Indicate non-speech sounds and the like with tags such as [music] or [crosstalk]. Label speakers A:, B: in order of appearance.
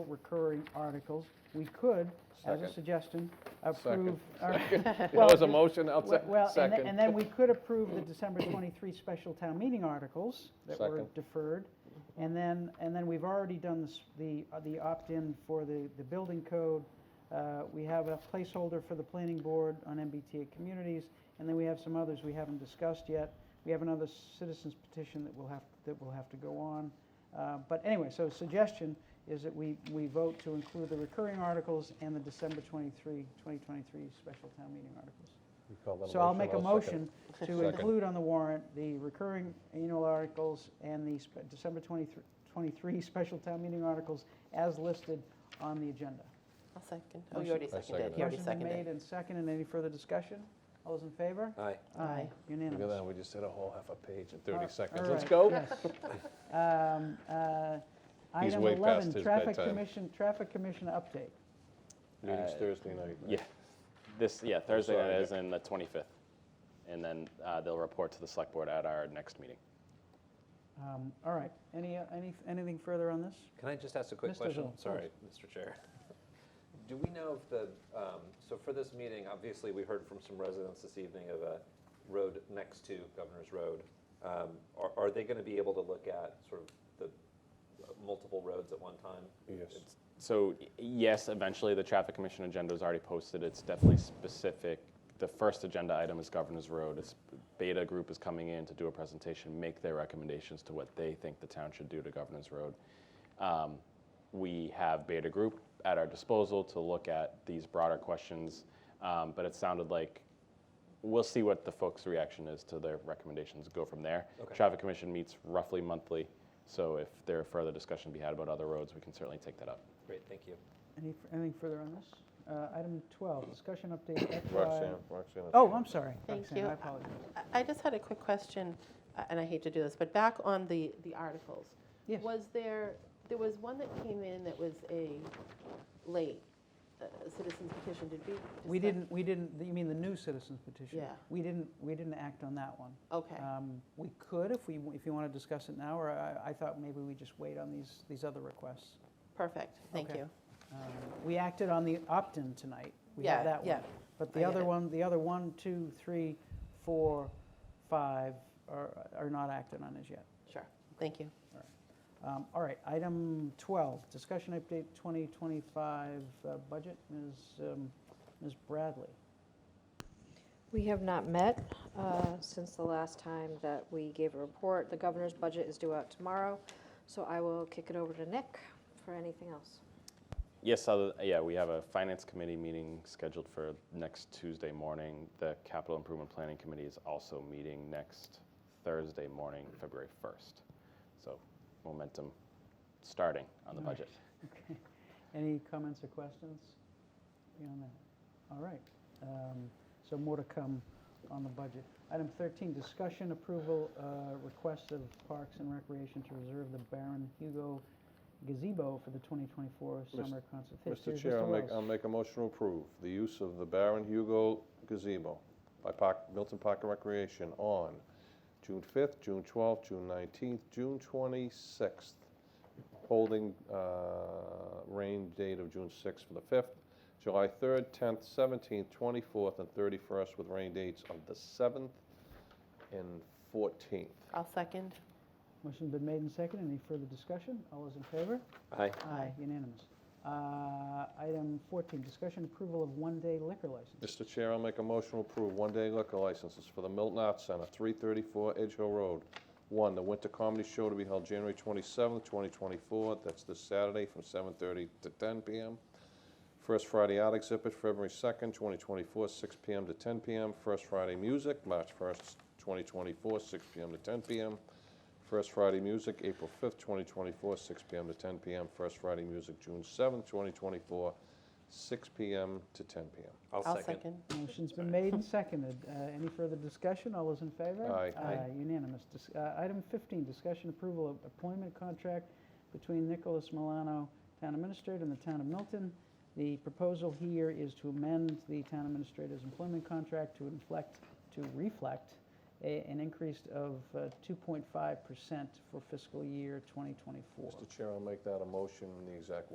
A: recurring articles, we could, as a
B: Second.
A: suggestion,
B: Second. [laughs]
A: approve. our- [laughs]
B: That was a
A: Well,
B: motion, I'll
A: Well,
B: sec-
A: well, and then-
B: second.
A: and then we could approve the December 23 special town meeting articles that were
B: Second.
A: deferred. And then, and then we've already done this- the, uh, the opt-in for the, the building code. Uh, We have a placeholder for the planning board on MBTA communities, and then we have some others we haven't discussed yet. We have another citizens petition that will have, that will have to go on. Uh, But anyway, so suggestion is that we, we vote to include the recurring articles and the December 23, 2023 special town meeting articles.
B: You call that
A: So I'll make a
B: second
A: motion to
B: Second.
A: include on the warrant the recurring annual articles and the spe- December 23 23 [laughs] special town meeting articles as listed on the agenda.
C: I'll second. Oh,
A: Motion-
C: you already
B: I
C: seconded.
B: seconded
C: You already
A: Motion's been made
C: seconded.
A: and seconded. Any further discussion? All those in favor?
B: it. Aye.
C: Aye.
B: Look at
A: Unanimous.
B: that, we just did a whole half a page in
A: All-
B: 30
A: all
B: seconds. Let's
A: right,
B: go.
A: yes. Um, uh,
B: He's
A: Item
B: way
A: 11,
B: past his
A: traffic
B: bedtime.
A: commission, traffic commission update.
B: Meeting's
D: Uh,
B: Thursday night. right?
D: Yeah, this, yeah, Thursday
B: sorry,
D: night
B: Nick.
D: is in the 25th. And then uh, they'll report to the select board at our next meeting.
A: Um, All right. Any, uh, any, anything further on this?
E: Can I just ask a quick
A: Mr.
E: question?
A: Zoll, of
E: Sorry, Mr. Chair. Do we know if the, um, so for this meeting, obviously, we heard from some residents this evening of a road next to Governor's Road. Um, Are are they going to be able to look at sort of the uh, multiple roads at one time?
B: Yes.
E: It's-
D: So y- yes, eventually, the traffic commission agenda is already posted. It's definitely specific. The first agenda item is Governor's Road. It's Beta Group is coming in to do a presentation, make their recommendations to what they think the town should do to Governor's Road. Um, We have Beta Group at our disposal to look at these broader questions, um, but it sounded like we'll see what the folks' reaction is to their recommendations, go from there.
E: Okay.
D: Traffic Commission meets roughly monthly, so if there are further discussion to be had about other roads, we can certainly take that up.
E: Great, thank you.
A: Any, anything further on this? Uh, Item 12, discussion update FY.
B: Roxanne, Roxanne.
A: Oh, I'm sorry.
C: Thank
A: Roxanne,
C: you.
A: I apologize.
C: I- I just had a quick question, uh, and I hate to do this, but back on the, the articles.
A: Yes.
C: Was there, there was one that came in that was a late uh, citizen's petition, did we?
A: We
C: discuss-
A: didn't, we didn't, you mean the new citizens petition?
C: Yeah.
A: We didn't, we didn't act on that one.
C: Okay,
A: Um, We could, if we, if you want to discuss it now, or I, I thought maybe we just wait on these, these other requests.
C: perfect, thank
A: okay.
C: you.
A: Um, We acted on the opt-in tonight. We have
C: Yeah,
A: that one.
C: yeah.
A: But
C: I
A: the
C: get
A: other
C: it.
A: one, the other one, two, three, four, five are, are not acted on as yet.
C: Sure, thank you.
A: Um, All right, item 12, discussion update 2025 uh, budget, Ms. um, Ms. Bradley.
F: We have not met uh, since the last time that we gave a report. The governor's budget is due out tomorrow, so I will kick it over to Nick for anything else.
D: Yes, other- yeah, we have a finance committee meeting scheduled for next Tuesday morning. The capital improvement planning committee is also meeting next Thursday morning, February 1st. So momentum starting on the
A: Nice.
D: budget.
A: Okay. [laughs] Any comments or questions beyond that? All right. Um, So more to come on the budget. Item 13, discussion approval, uh, request of Parks and Recreation to reserve the Baron Hugo gazebo for the 2024
B: Mis-
A: summer concert. Hey,
B: Mr.
A: here's
B: Chair, I'll make, um,
A: Wells.
B: I'll make a motion to approve the use of the Baron Hugo gazebo by Park, Milton Park and Recreation on June 5th, June 12th, June 19th, June 26th, holding uh, rain date of June 6th for the 5th, July 3rd, 10th, 17th, 24th, and 31st, with rain dates of the 7th and 14th.
C: I'll second.
A: Motion's been made and seconded. Any further discussion? All those in favor?
E: Aye.
A: Aye, unanimous. Uh, Item 14, discussion approval of one-day liquor license.
B: Mr. Chair, I'll make a motion to approve one-day liquor licenses for the Milton Arts Center, 334 Edge Hill Road. One, the Winter Comedy Show to be held January 27th, 2024, that's this Saturday from 7:30 to 10 p.m. First Friday Art Exhibit, February 2nd, 2024, 6 p.m. to 10 p.m. First Friday Music, March 1st, 2024, 6 p.m. to 10 p.m. First Friday Music, April 5th, 2024, 6 p.m. to 10 p.m. First Friday Music, June 7th, 2024, 6 p.m. to 10 p.m.
C: I'll second.
A: Motion's been made and seconded. Uh, Any further discussion? All those in favor?
B: Aye. Aye.
A: Unanimous. Dis- uh, Item 15, discussion approval of employment contract between Nicholas Milano, Town Administrator, and the Town of Milton. The proposal here is to amend the Town Administrator's employment contract to inflect, to reflect a- an increase of uh, 2.5% for fiscal year 2024.
B: Mr. Chair, I'll make that a motion in the exact